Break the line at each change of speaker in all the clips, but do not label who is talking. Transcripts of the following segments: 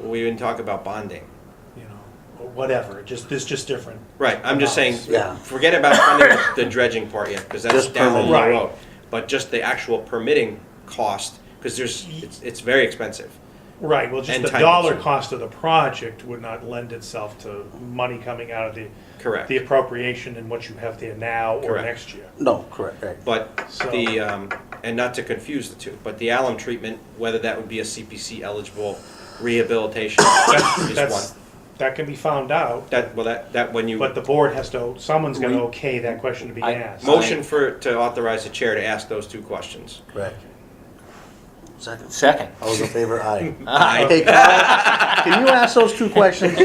we didn't talk about bonding.
you know, or whatever, It just, this just different.
Right, I'm just saying,
Yeah.
forget about funding the dredging part yet, because that's
Just
down the
permitting.
Right.
road. But just the actual permitting cost, because there's, it's, it's very expensive.
Right, well, just
And
the
time
dollar
consuming.
cost of the project would not lend itself to money coming out of the.
Correct.
The appropriation and what you have there now or
Correct.
next year.
No, correct, right.
But
So-
the, um, and not to confuse the two, but the alum treatment, whether that would be a CPC eligible rehabilitation is
That's,
one.
that can be found out,
That, well, that, that when you,
but the board has to, someone's gonna
We-
okay that question to be
I-
asked.
motion for, to authorize the chair to ask those two questions.
Right. Second.
Second.
All those in favor, aye.
Aye.
Hey, Kyle, can you ask those two questions?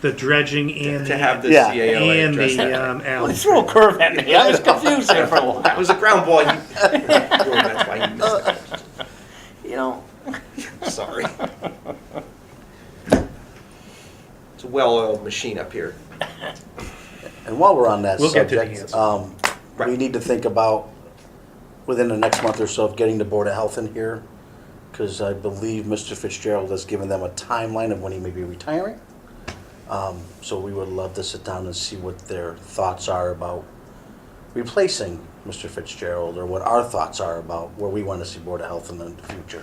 The dredging and
To have the
Yeah,
CAO address that.
um,
Well, you threw a curve at me. I was confused there for a while.
That was a ground ball. You- That's why you missed
You know,
it. Sorry. It's a well-oiled machine up here.
And while we're on that
We'll get to the
subject,
answer.
um, we
Right.
need to think about, within the next month or so, of getting the Board of Health in here. Because I believe Mr. Fitzgerald has given them a timeline of when he may be retiring. Um, so we would love to sit down and see what their thoughts are about replacing Mr. Fitzgerald, or what our thoughts are about where we want to see Board of Health in the future.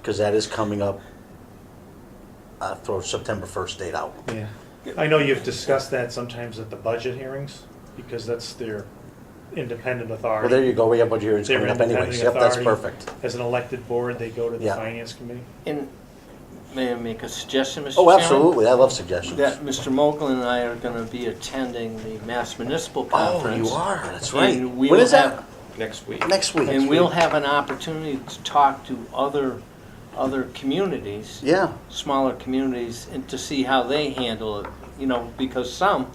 Because that is coming up, uh, throw September first date out.
Yeah. I know you've discussed that sometimes at the budget hearings, because that's their independent
Well, there
authority.
you go, we have budget hearings
Their
coming up anyways,
independent
yep, that's
authority.
perfect.
As an elected board, they go to the
Yeah.
finance committee.
and may I make a suggestion, Mr.
Oh,
Chairman?
absolutely, I love suggestions.
That Mr. Mogul and I are going to be attending the Mass Municipal
Oh,
Conference.
you are, that's
And
right.
we
When
will
is that?
have-
Next week.
Next week.
And we'll have an opportunity to talk to other, other communities.
Yeah,
smaller communities and to see how they handle it, you know, because some,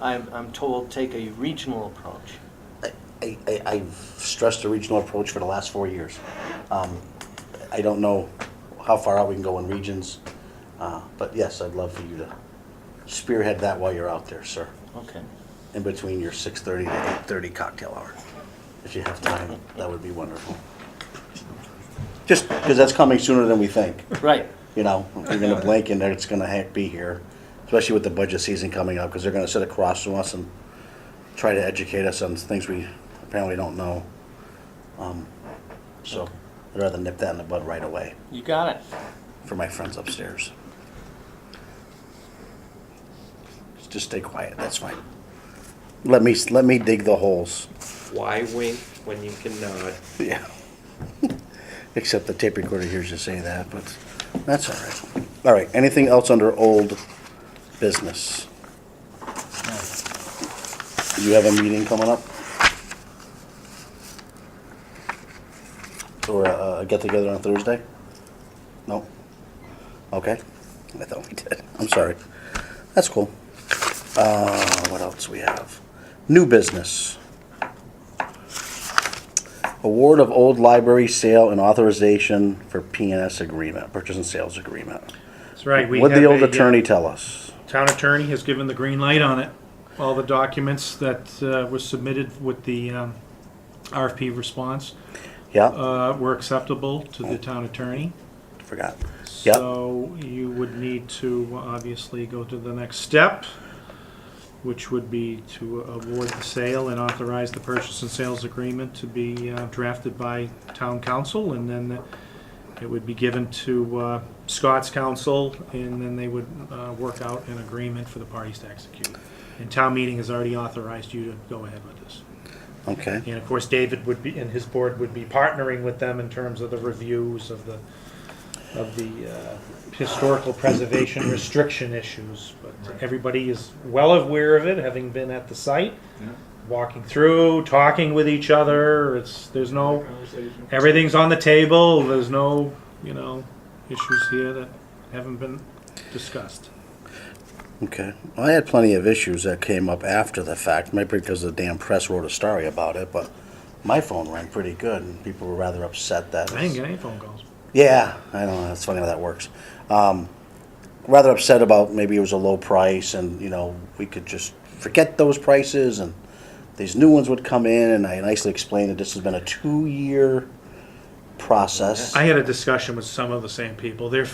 I'm, I'm told, take a regional approach.
I, I, I've stressed the regional approach for the last four years. Um, I don't know how far out we can go in regions, uh, but yes, I'd love for you to spearhead that while you're out there, sir.
Okay.
In between your six thirty to eight thirty cocktail hour. If you have time, that would be wonderful. Just, because that's coming sooner than we think.
Right.
You know, if you're gonna blink and it's gonna ha- be here, especially with the budget season coming up, because they're gonna sit across from us and try to educate us on things we apparently don't know. Um, So I'd rather nip that in the bud right away
You got it.
for my friends upstairs. Just stay quiet, that's fine. Let me, let me dig the holes.
Why wink when you can nod?
Yeah. Except the tape recorder hears you say that, but that's all right. All right, anything else under old business? You have a meeting coming up? Or uh, a a get-together on Thursday? No? Okay, I thought we did, I'm sorry. That's cool. Uh, what else we have? New business. Award of old library sale and authorization for PNS agreement, purchase and sales agreement.
That's right.
What'd the old attorney tell us?
uh, Town attorney has given the green light on it. All the documents that uh, were submitted with the um, RFP response
Yeah,
uh, were acceptable to the town attorney.
forgot. Yeah,
So you would need to obviously go to the next step, which would be to award the sale and authorize the purchase and sales agreement to be uh, drafted by town council, and then it would be given to uh, Scott's council, and then they would uh, work out an agreement for the parties to execute. And town meeting has already authorized you to go ahead with this.
okay.
And of course, David would be, and his board would be partnering with them in terms of the reviews of the, of the uh, historical preservation restriction issues. But everybody is well aware of it, having been at the site, walking through, talking with each other. It's, there's no, everything's on the table. There's no, you know, issues here that haven't been discussed.
Okay. Well, I had plenty of issues that came up after the fact, maybe because the damn press wrote a story about it, but my phone rang pretty good and people were rather upset that.
I didn't get any phone calls.
Yeah, I don't know. That's funny how that works. Um, rather upset about maybe it was a low price and, you know, we could just forget those prices and these new ones would come in. And I nicely explained that this has been a two year process.
I had a discussion with some of the same people. They're